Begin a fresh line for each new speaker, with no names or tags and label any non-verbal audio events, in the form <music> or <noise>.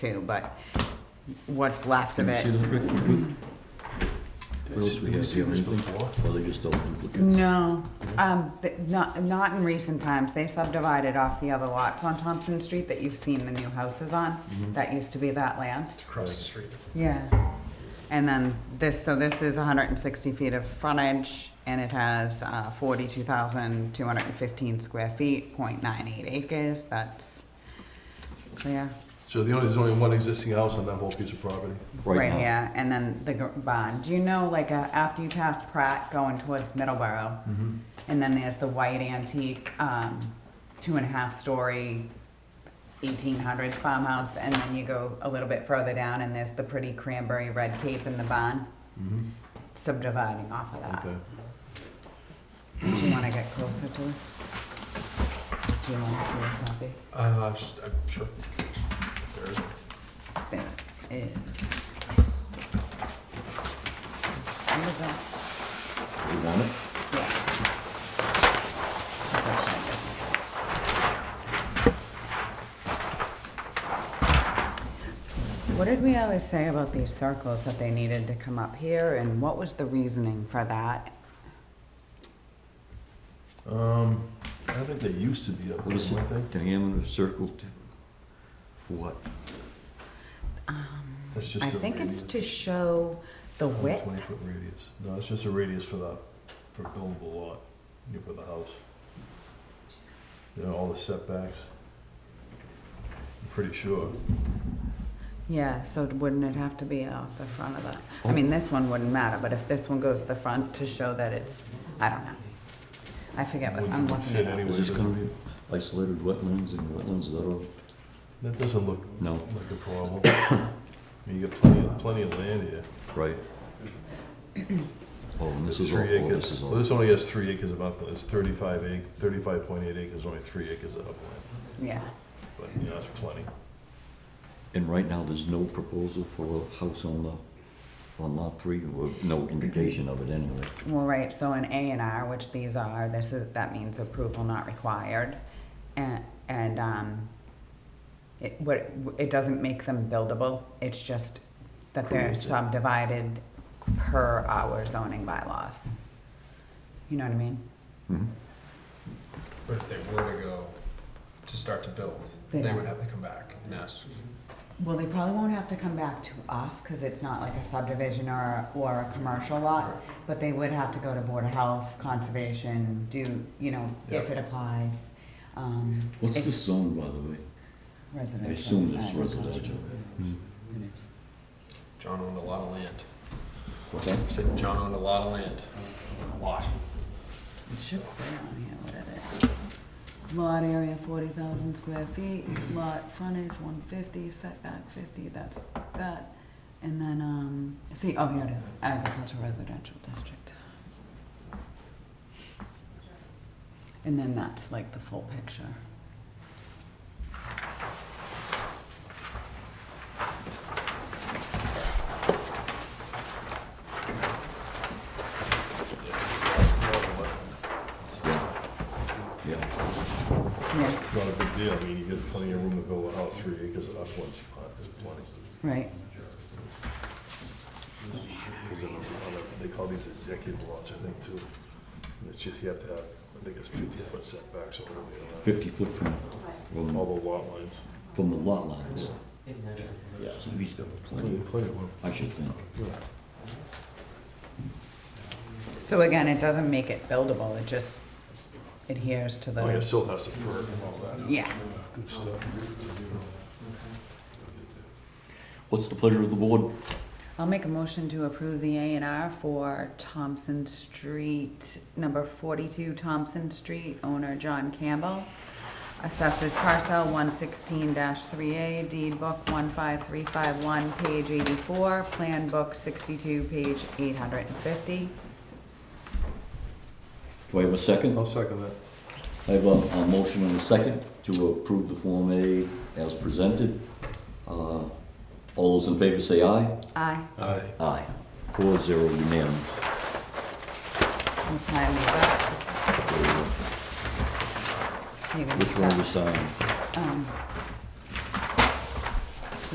too, but what's left of
Can you see
it.
those, Rick? What else we have here, anything? Or they just don't
Mm,
duplicate?
No, um, th- not, not in recent times. They subdivided off the other lots on Thompson Street that you've seen the new houses on.
Mm-hmm.
That used to be that land.
across the street.
Yeah. And then this, so this is hundred and sixty feet of frontage and it has, uh, forty-two thousand, two hundred and fifteen square feet, point nine eight acres. That's clear.
So the only, there's only one existing house on that whole piece of property?
Right
now.
here, and then the gr- barn. Do you know, like, uh, after you pass Pratt going towards Middleborough,
Mm-hmm.
and then there's the white antique, um, two and a half story, eighteen hundreds farmhouse, and then you go a little bit further down, and there's the pretty cranberry red cape in the barn, subdividing off of that.
Mm-hmm. Okay.
Do you wanna get closer to this? Do you wanna see a copy?
Uh, s- uh, sure. There is one.
There is. What is that?
You want it?
Yeah. That's actually good. What did we always say about these circles, that they needed to come up here, and what was the reasoning for that?
Um, I don't think they used to be up
What
there,
is the
I think.
diameter of circle to, for what?
That's just
Um, I
a
think it's
radius.
to show the
Oh,
width.
Twenty-foot radius. No, it's just a radius for the, for buildable lot, you know, for the house. You know, all the setbacks. I'm pretty sure.
Yeah, so wouldn't it have to be off the front of the, I
Oh.
mean, this one wouldn't matter, but if this one goes to the front to show that it's, I don't know. I forget what, I'm
Wouldn't
looking
fit
at it. up.
anyway,
Is this
does
gonna
it?
be isolated wetlands and wetlands that are,
That doesn't look
No.
like a problem. <coughs> I mean, You got plenty, of- plenty of land here.
right? Oh, and this is all,
Three
oh,
acres.
this is
Well,
all,
this only has three acres of upland, it's thirty-five ac, thirty-five point eight acres, only three acres of upland,
Yeah.
but, you know, that's plenty.
and right now, there's no proposal for a house on the, on lot three, or no indication of it anyway.
Well, right, so an A and R, which these are, this is, that means approval not required. And, and, um, it, what, it doesn't make them buildable, it's just that they're
Creates it.
subdivided per our zoning bylaws. You know what I mean?
Mhm.
But if they were to go to start to build, they
Yeah.
would have to come back and ask.
Well, they probably won't have to come back to us, cause it's not like a subdivision or, or a commercial lot, but they would have to go to Board of Health, Conservation, do, you know, if
Yeah.
it applies. Um,
What's
if-
this zone, by the way? I
Residential. Hmm.
assume it's
agriculture.
residential.
John owned a lot of land.
What's that?
I said John owned a lot of land. A lot.
It should say on here what it is. Lot area forty thousand square feet, lot frontage one fifty, setback fifty, that's that. And then, um, see, oh, here it is, agricultural residential district. And then that's like the full picture.
Yeah,
Yeah,
It's not a big deal, I mean, you get plenty of room to build a house, three acres of upland spot is plenty.
right.
There's a- a- They call these executive lots, I think, too. And It's just, you have to have, I think it's fifty-foot setbacks or whatever. they
fifty foot from,
allow.
from,
All the lot lines.
from the lot lines. So he's got plenty,
Plenty of room.
I should think.
So again, it doesn't make it buildable, it just adheres to
Like, it
the,
still has to perk and all that
yeah.
good stuff.
What's the pleasure of the board?
I'll make a motion to approve the A and R for Thompson Street, number forty-two Thompson Street, owner John Campbell. Assessors parcel one sixteen three A, deed book one five three five one, page eighty-four, plan book sixty-two, page eight hundred and fifty.
Do I have a second?
I'll second that.
I have a, a motion and a second to approve the Form A as presented. Uh, All those in favor say aye.
Aye.
Aye.
Aye. Four zero unanimous.
I'll sign these up. You can
Which one
start.
we sign?
Um,